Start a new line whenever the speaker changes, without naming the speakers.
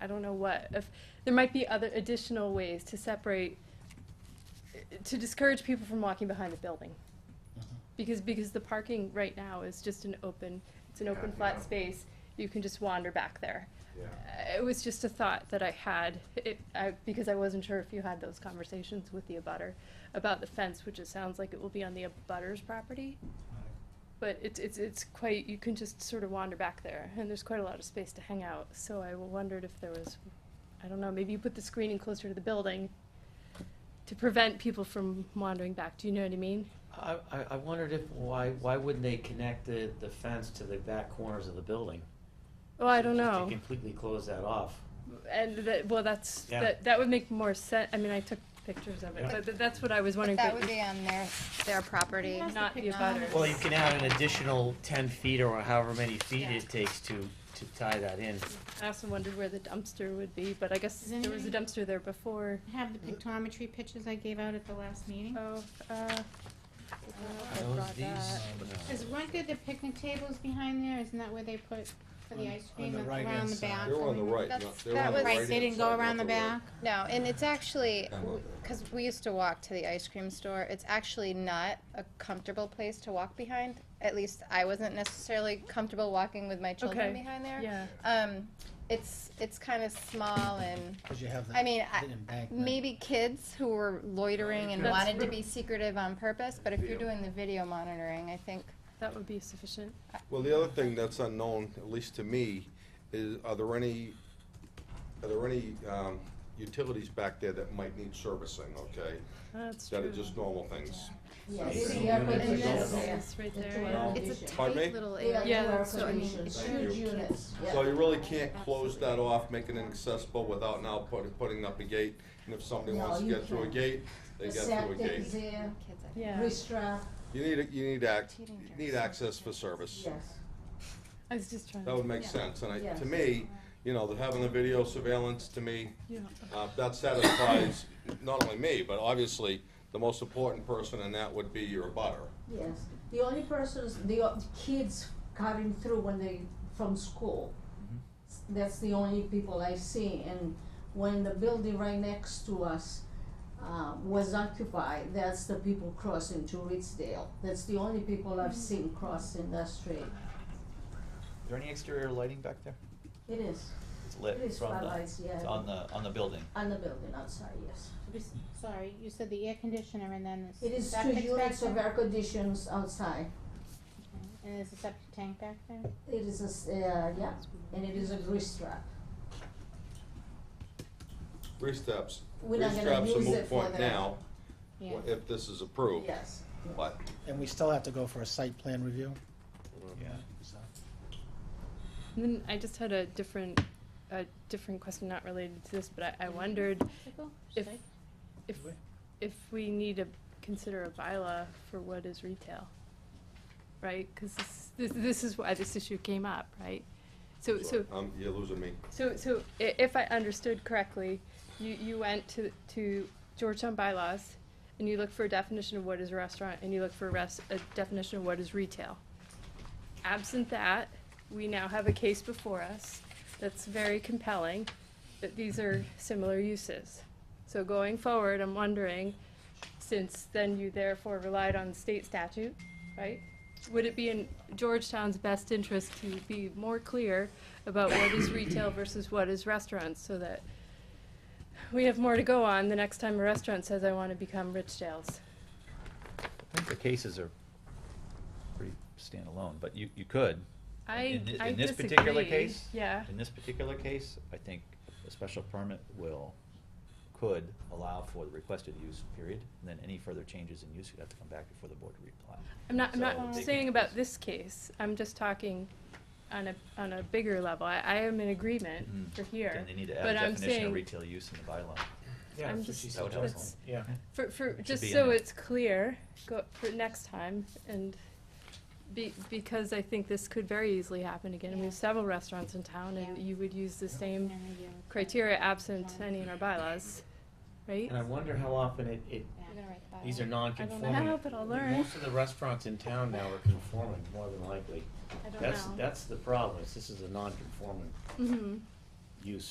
I don't know what, if, there might be other additional ways to separate, to discourage people from walking behind the building. Because, because the parking right now is just an open, it's an open
Yeah,
flat
yeah.
space, you can just wander back there.
Yeah.
Uh, It was just a thought that I had, it, I, because I wasn't sure if you had those conversations with the abutter about the fence, which it sounds like it will be on the abutter's property. But it's, it's, it's quite, you can just sort of wander back there, and there's quite a lot of space to hang out, so I wondered if there was, I don't know, maybe you put the screening closer to the building to prevent people from wandering back, do you know what I mean?
I, I, I wondered if, why, why wouldn't they connect the, the fence to the back corners of the building?
Well, Oh, I don't
Just to
know,
completely close that off.
and that, well, that's,
Yeah.
that, that would make more sense. I mean, I took pictures of it,
Yeah.
but th- that's what I was
But
wondering.
that
but
would
if-
be on their, their property.
Not the abutters.
Well, you can add an additional ten feet or however many feet it takes to, to tie that in.
I also wondered where the dumpster would be, but I guess
Does
there was a
anybody-
dumpster there before.
Have the pictometry pictures I gave out at the last meeting?
Oh, uh, I
Are
don't know if I
those
brought
these?
that.
Is weren't there the picnic tables behind there? Isn't that where they put for the
On-
ice
on
cream
the
and
right-hand
around the
side.
back?
They were on the right,
That's-
not, they were
that
on the
was-
right.
Right, they didn't go around the back?
No, and it's actually,
I love that.
because we used to walk to the ice cream store, it's actually not a comfortable place to walk behind. At least I wasn't necessarily comfortable walking with my children
Okay.
behind there.
Yeah,
Um, it's, it's kind of small and,
Because you have the,
I mean, I-
the embankment.
maybe kids who were loitering and
That's
wanted to
true.
be secretive on purpose, but if you're
Video.
doing the video monitoring, I think,
that would be sufficient.
Well, the other thing that's unknown, at least to me, is are there any, are there any, um, utilities back there that might need servicing, okay?
That's
That are
true.
just normal things.
And
It's
this,
all-
this right there.
all-
it's a
Pardon me?
tight little area.
Yeah, that's what I mean.
It's
Thank
huge
you.
units.
So you really can't close that off, making it accessible without now putting, putting up a gate. And if somebody
No,
wants to
you
get through a
can't.
gate, they
The
get through a
septic
gate.
is there,
Kids, I think.
Yeah,
Ristra,
You need, a- you need act,
Teething
you
jars.
need access for service.
yes.
I was just trying
That would
to,
make
Yeah.
sense, and I,
Yes.
to me, you know, the having the video surveillance, to me,
yeah.
uh, that satisfies not only me, but obviously, the most important person in that would be your butter.
Yes, the only persons, the o- kids coming through when they, from school. S- That's the only people I see, and when the building right next to us, uh, was occupied, that's the people crossing to Ritzdale. That's the only people
Mm-hmm.
I've seen crossing that street.
Is there any exterior lighting back there?
It is,
It's
it
lit
is
from the,
spotlights, yeah.
it's on the, on the building.
On the building outside, yes.
Just- Sorry, you said the air conditioner and then the
It is two
septic back
units of
there?
air conditions outside.
And there's a septic tank back there?
It is a, s- uh, yeah, and it is a grease trap.
Three steps,
We're
three
not gonna
steps a
use it
moot
for
point
the-
now,
Yeah.
if this is approved.
Yes.
But,
And we still have to go for a site plan review,
Yeah.
so.
And then I just had a different, a different question, not related to this, but I, I wondered
Pickle?
if,
Sorry.
if, if we need to consider a bylaw for what is retail, right? Because this, this, this is why this issue came up, right? So, so,
um, you're losing me.
so, so i- if I understood correctly, you, you went to, to Georgetown bylaws and you look for a definition of what is a restaurant and you look for a rest, a definition of what is retail. Absent that, we now have a case before us that's very compelling, that these are similar uses. So going forward, I'm wondering, since then you therefore relied on state statute, right? Would it be in Georgetown's best interest to be more clear about what is retail versus what is restaurants, so that we have more to go on the next time a restaurant says, I wanna become Rich Dale's?
I think the cases are pretty standalone, but you, you could.
I,
In thi-
I
in this particular
disagree.
case?
Yeah,
In this particular case, I think a special permit will, could allow for the requested use period, and then any further changes in use, you'd have to come back before the board to reapply.
I'm not, I'm
So
not
they
saying
can-
about this case, I'm just talking on a, on a bigger level, I, I am in agreement
Mm.
for here.
Then they need to add a
But I'm
definition
saying-
of retail use in the bylaw.
Yeah,
I'm
that's what
just-
she
That would
said.
help.
that's-
Yeah.
For, for,
should
just
be in
so
there.
it's clear, go, for next time, and be, because I think this could very easily happen again, we
Yeah.
have several restaurants in town, and
Yeah.
you would use the
And
same
then you-
criteria absent any in our bylaws, right?
And I wonder how often it, it,
Yeah.
You're gonna write the bylaw.
these are non-conforming.
I don't know, but I'll learn.
Most of the restaurants in town now are conforming, more than likely.
I don't
That's,
know.
that's the problem, is this is a non-conforming
Mhm.
use.